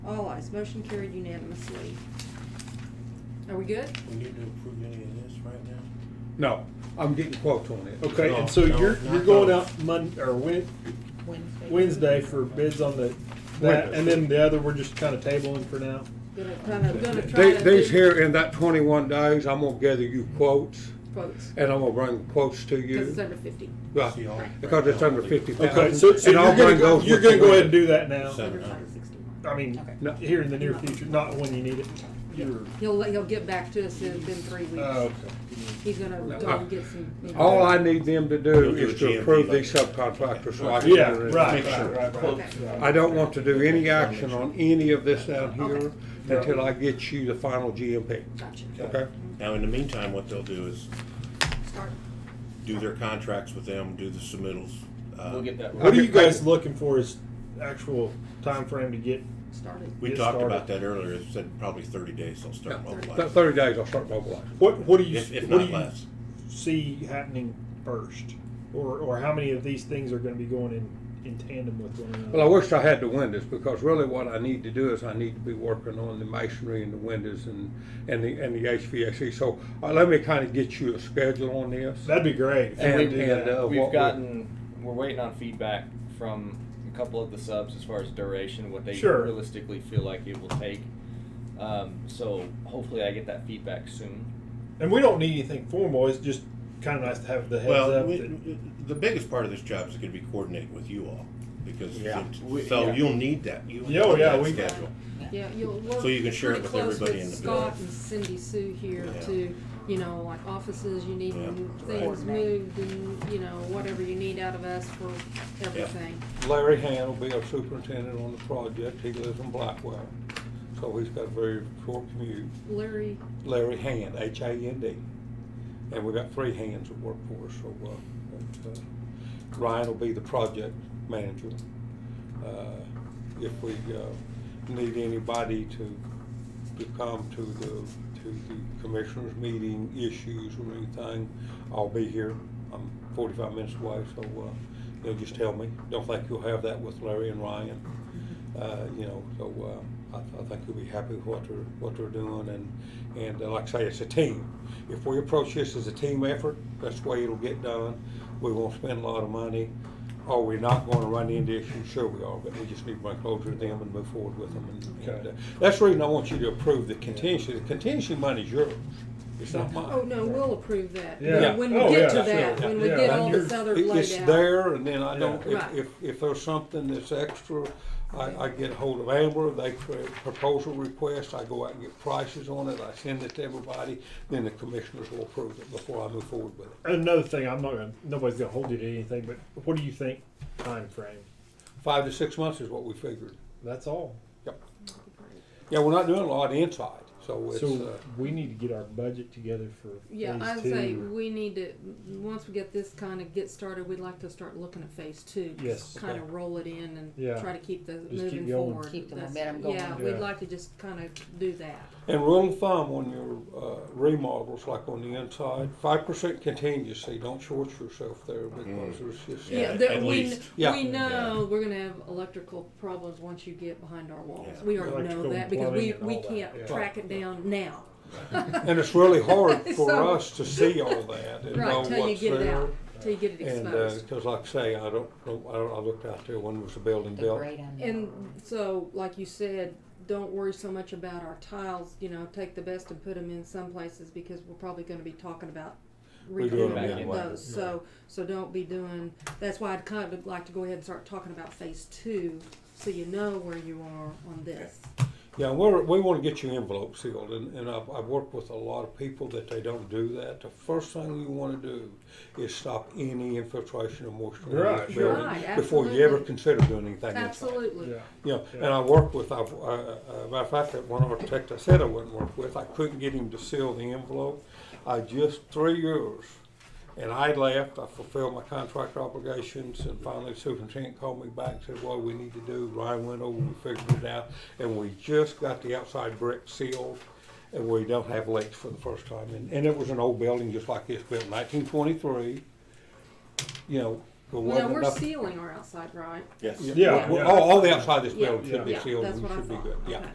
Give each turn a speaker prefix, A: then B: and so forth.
A: Likewise, motion carried unanimously. Are we good?
B: We need to approve any of this right now?
C: No, I'm getting quotes on it.
D: Okay,
B: No,
D: and so
B: no,
D: you're,
B: not
D: you're going
B: those.
D: out Mon, or Wed,
E: Wednesday.
D: Wednesday for bids on the, that,
C: Windows.
D: and then the other, we're just kinda tabling for now?
A: Gonna kind of, gonna try
C: They-
A: to.
C: These
A: do
C: here in that twenty-one days, I'm gonna gather you quotes
A: Quotes,
C: and I'm gonna bring quotes to
A: because it's
C: you.
A: under fifty.
B: See, I'll-
C: Right, because it's under fifty
D: Okay, so,
C: thousand.
D: so
C: And I'll
D: you're gonna
C: bring
D: go,
C: those.
D: you're
C: with
D: gonna
C: you.
D: go ahead and do that now,
B: Seven.
A: Under five sixty.
D: I mean,
C: No.
D: here in the near future, not when you need it. You're-
A: He'll, let- he'll get back to us in, in three
D: Oh,
A: weeks.
D: okay.
A: He's gonna go and get some.
C: All I need them to do
B: You'll do
C: is
B: a
C: to
B: GMP
C: approve
B: later.
C: these subcontractors so I can.
D: Yeah,
C: enter
D: right,
C: in.
D: right,
B: sure.
D: right, right.
A: Okay.
C: I don't want to do any action on any of this down here until I get you the final GMP,
A: Gotcha.
C: okay?
B: Now, in the meantime, what they'll do is
A: Start.
B: do their contracts with them, do the submittals. Uh,
F: We'll get that.
D: What are you guys looking for as actual time frame to get?
A: started.
B: We
D: Get
B: talked
D: started.
B: about that earlier, it said probably thirty days they'll start
C: Yeah.
B: mobilizing.
C: Th- Thirty days, I'll start mobilizing.
D: What, what do you,
B: If, if
D: what
B: not
D: do you
B: less.
D: see happening first? Or, or how many of these things are gonna be going in, in tandem with one another?
C: Well, I wish I had the windows, because really what I need to do is I need to be working on the masonry and the windows and, and the, and the HVAC. So, uh, let me kinda get you a schedule on this.
D: That'd be great. if we
C: And-
D: could do
C: and,
D: that.
C: uh, what
F: We've
C: we-
F: gotten, we're waiting on feedback from a couple of the subs as far as duration, what they
D: Sure.
F: realistically feel like it will take. Um, so hopefully I get that feedback soon.
D: And we don't need anything formal. It's just kind of nice to have the heads
B: Well,
D: up.
B: we-
D: that-
B: the biggest part of this job is gonna be coordinating with you all, because,
D: Yeah.
F: We-
B: so
F: yeah.
B: you'll need that, you'll
D: Yeah, oh,
B: need
D: yeah,
B: that
D: we-
B: schedule.
A: Yeah, you'll work.
B: So you can share it
A: pretty
B: with
A: close
B: everybody in the
A: Scott
B: building.
A: and Cindy Sue here
B: Yeah.
A: to, you know, like offices, you need
B: Yeah,
A: things
E: right.
A: moved and, you know, whatever you need out of us for everything.
C: Larry Han will be our superintendent on the project. He lives in Blackwell. So he's got a very short commute.
A: Larry,
C: Larry Han, H A N D. And we got three hands that work for us, so, uh, but, uh, Ryan will be the project manager. Uh, If we, uh, need anybody to, to come to the, to the commissioners' meeting issues or anything, I'll be here. I'm forty-five minutes away, so, uh, you know, just tell me. Don't think you'll have that with Larry and Ryan uh, you know, so uh, I, I think you'll be happy with what they're, what they're doing, and, and uh, like I say, it's a team. If we approach this as a team effort, that's the way it'll get done. We won't spend a lot of money. Are we not gonna run into issues? Sure we are, but we just need to bring closure to them and move forward with them. and- and, uh,
D: Okay.
C: That's the reason I want you to approve the contingency. The contingency money's yours. It's not mine.
A: oh, no, we'll approve that.
D: Yeah.
A: When we
D: Oh,
A: get
D: yeah,
A: to that,
D: yeah,
A: when we
D: yeah.
A: get all
C: You're-
A: this other
C: it-
A: laid
C: It's
A: out.
C: there, and then I don't,
A: Yeah.
C: if, if, if there's something that's extra, I, I get hold of Amber, they create a proposal request, I go out and get prices on it, I send it to everybody, then the commissioners will approve it before I move forward with it.
D: Another thing, I'm not gonna. Nobody's gonna hold you to anything. But what do you think time frame?
C: Five to six months is what we figured.
D: That's all.
C: Yeah, we're not doing a lot inside, so it's,
D: so
C: uh,
D: we need to get our budget together for
A: Yeah,
D: phase
A: I'd
D: two.
A: say we need to, once we get this kind of get started, we'd like to start looking at phase two.
D: Yes.
A: Kind of roll it in
D: Yeah.
A: and try to keep the,
D: keep
A: moving
D: going.
A: forward.
E: Keep the
A: That's-
E: momentum going.
A: Yeah, we'd
D: Yeah.
A: like to just kind of do that.
C: and rule of thumb on your, uh, remodels, like on the inside, five percent contingency, don't short yourself there because there's just.
B: Yeah,
A: Yeah, there,
B: at
A: we,
B: least.
C: Yeah.
A: we know
B: Yeah.
A: we're gonna have electrical problems once you get behind our walls.
B: Yeah.
A: We already know
D: Electrical
A: that because
D: plumbing
A: we,
D: and
A: we
D: all that,
A: can't
D: yeah.
A: track it down now.
C: And it's really hard for
A: So-
C: us to see all that and know
A: Right,
C: what's there.
A: till you get it out, till you get it
C: And, uh
A: exposed.
C: 'cause like I say, I don't, know- I don't, I looked out there, when was the building
E: The
C: built?
E: great unknown.
A: And so, like you said, don't worry so much about our tiles, you know, take the best and put them in some places because we're probably gonna be talking about
C: We're
F: doing
A: redoing
F: them anyway.
A: those, so, so don't be doing, that's why I'd kind of like to go ahead and start talking about phase two, so you know where you are on this.
C: Yeah, and we're, we wanna get your envelope sealed, and, and I've, I've worked with a lot of people that they don't do that. The first thing you wanna do is stop any infiltration of moisture in
D: Right,
C: this building.
A: Right,
C: Before you ever
A: absolutely.
C: consider doing anything inside.
A: Absolutely.
D: Yeah.
C: Yeah, and I worked with, I've, uh, uh, matter of fact, that one architect I said I wouldn't work with, I couldn't get him to seal the envelope. I just, three years, and I left, I fulfilled my contract obligations, and finally superintendent called me back and said, well, we need to do, Ryan went over, we figured it out, and we just got the outside brick sealed, and we don't have leaks for the first time, and, and it was an old building just like this, built nineteen twenty-three, you know, there
A: Well, now
C: wasn't
A: we're
C: enough.
A: sealing our outside, right?
B: Yes.
D: Yeah,
C: Well,
D: yeah.
C: All, all the outside of this
A: Yeah.
C: building should be
A: Yeah,
C: sealed
A: that's
C: and
A: what I
C: should be
A: thought.
C: good, yeah.
A: Okay.